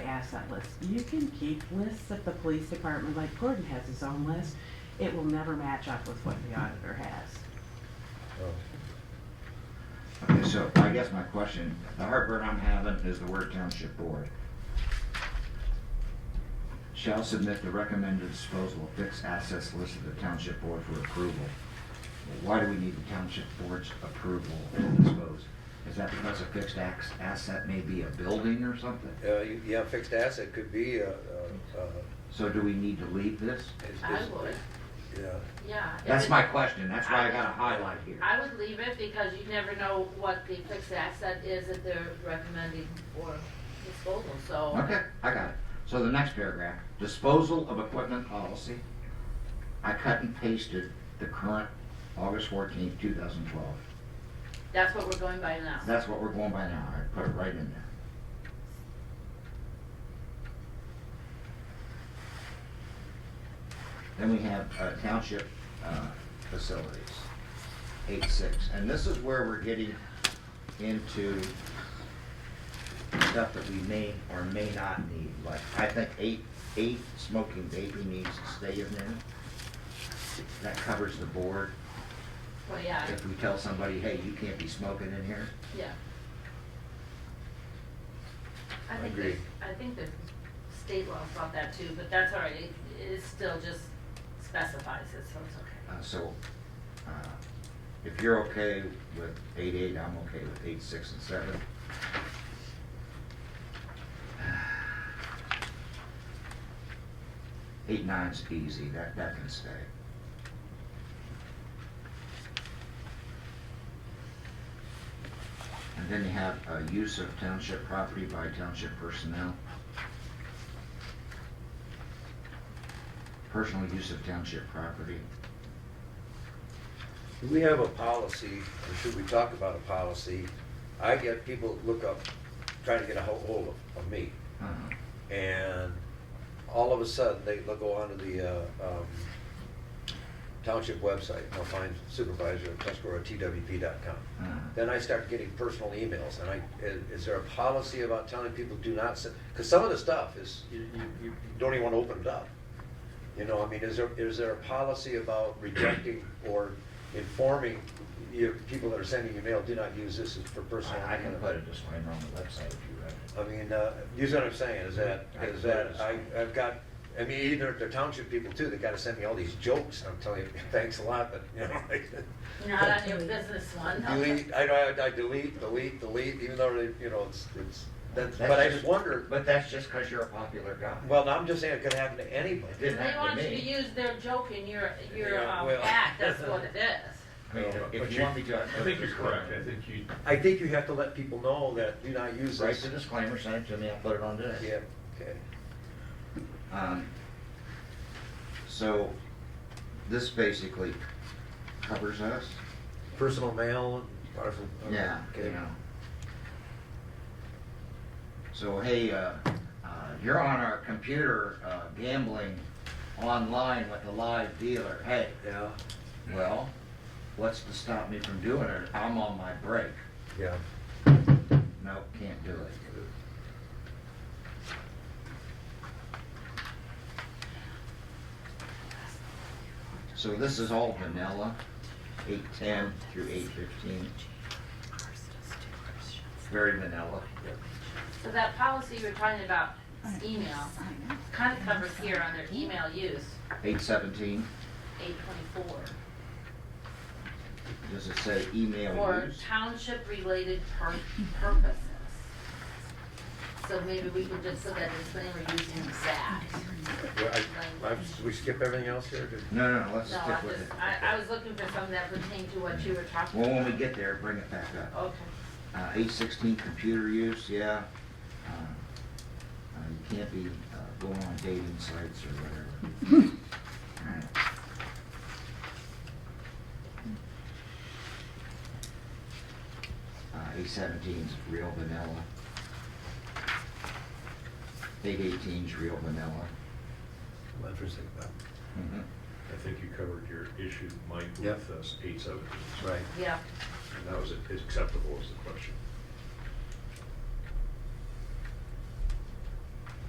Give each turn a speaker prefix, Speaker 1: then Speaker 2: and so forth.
Speaker 1: pass that list. You can keep lists of the police department, like Gordon has his own list. It will never match up with what the auditor has.
Speaker 2: Okay, so I guess my question, the heartburn I'm having is the word township board. Shall submit the recommended disposal of fixed assets listed to township board for approval. Why do we need the township board's approval to dispose? Is that because a fixed ax- asset may be a building or something?
Speaker 3: Uh, you- Yeah, fixed asset could be, uh, uh, uh,
Speaker 2: So do we need to leave this?
Speaker 3: is-
Speaker 4: I
Speaker 3: is-
Speaker 4: would,
Speaker 3: yeah.
Speaker 4: yeah. If
Speaker 2: That's
Speaker 4: it-
Speaker 2: my question, that's why I got a highlight here.
Speaker 4: I would leave it because you never know what the fixed asset is that they're recommending for disposal, so.
Speaker 2: Okay, I got it. So the next paragraph, disposal of equipment policy. I cut and pasted the current August fourteenth, two thousand twelve.
Speaker 4: That's what we're going by now.
Speaker 2: That's what we're going by now. I put it right in there. Then we have uh, township uh, facilities, eight six. And this is where we're getting into stuff that we may or may not need. Like, I think eight, eight smoking baby needs to stay in there. That covers the board.
Speaker 4: Well, yeah,
Speaker 2: If we tell somebody, hey, you can't be smoking in here,
Speaker 4: yeah. I think,
Speaker 3: Agree.
Speaker 4: there's- I think there's state laws about that too, but that's all right. It, it still just specifies it, so it's okay.
Speaker 2: Uh, So, uh, if you're okay with eight eight, I'm okay with eight six and seven. Eight nine's easy, that, that can stay. And then you have uh, use of township property by township personnel. Personal use of township property.
Speaker 3: Do we have a policy, or should we talk about a policy? I get people look up, trying to get a ho- hold of, of me,
Speaker 2: Uh,
Speaker 3: and all of a sudden, they, they'll go onto the, uh, um, township website, and they'll find supervisor of Tuscarora, twp.com.
Speaker 2: uh.
Speaker 3: Then I start getting personal emails, and I, is, is there a policy about telling people do not send? Because some of the stuff is, you, you, you don't even want to open it up. You know, I mean, is there, is there a policy about rejecting or informing your, people that are sending you mail, do not use this as for personal?
Speaker 2: I I can put a disclaimer on the website if you read it.
Speaker 3: I mean, uh, you see what I'm saying, is that, is that, I, I've got, I mean, either the township people too, they gotta send me all these jokes, and I'm telling you, thanks a lot, but, you know, like.
Speaker 4: Not on your business one.
Speaker 3: Delete, I, I- I delete, delete, delete, even though, they- you know, it's, it's, that's, but I just wonder,
Speaker 2: But that's just because you're a popular guy.
Speaker 3: well, no, I'm just saying it could happen to
Speaker 2: It
Speaker 3: anybody.
Speaker 2: didn't
Speaker 4: They
Speaker 2: happen
Speaker 4: want
Speaker 2: to
Speaker 4: you to
Speaker 2: me.
Speaker 4: use their joke in your, your,
Speaker 3: Yeah,
Speaker 4: um,
Speaker 3: well.
Speaker 4: act, that's what it is.
Speaker 2: I mean,
Speaker 3: No,
Speaker 2: if
Speaker 5: but
Speaker 2: you
Speaker 5: you-
Speaker 2: want me to.
Speaker 5: I think you're correct, I think you,
Speaker 3: I think you have to let people know that do not use
Speaker 2: Write the
Speaker 3: this.
Speaker 2: disclaimer, send it to me, I'll put it on today.
Speaker 3: Yeah, okay.
Speaker 2: Um, So, this basically covers us.
Speaker 3: Personal mail, parcel.
Speaker 2: Yeah, you
Speaker 3: okay.
Speaker 2: know. So, hey, uh, uh, you're on our computer uh, gambling online with a live dealer. Hey,
Speaker 3: Yeah,
Speaker 2: Well, what's to stop me from doing it? I'm on my break.
Speaker 3: yeah.
Speaker 2: No, can't do it. So this is all vanilla, eight ten through eight fifteen, very vanilla.
Speaker 4: So that policy you're talking about, email, kind of covers here on their email use,
Speaker 2: Eight seventeen,
Speaker 4: eight twenty-four.
Speaker 2: does it say email
Speaker 4: For
Speaker 2: use?
Speaker 4: township-related pur- purposes. So maybe we could just, so that disclaimer using that.
Speaker 3: Well, I, I, we skip everything else here? Did-
Speaker 2: No, no, no, let's
Speaker 4: No, I
Speaker 2: stick with it.
Speaker 4: just, I, I was looking for something that pertained to what you were talking
Speaker 2: Well,
Speaker 4: about.
Speaker 2: when we get there, bring it back up.
Speaker 4: Okay,
Speaker 2: Uh, eight sixteen computer use, yeah. Uh, uh, You can't be uh, going on dating sites or whatever. Alright. Uh, eight seventeen's real vanilla. Eight eighteen's real vanilla.
Speaker 3: I'm interested about.
Speaker 2: Mhm.
Speaker 5: I think you covered your issue, Mike,
Speaker 3: Yep.
Speaker 5: with eight seventy.
Speaker 3: Right.
Speaker 4: yeah.
Speaker 5: And that was acceptable as the question.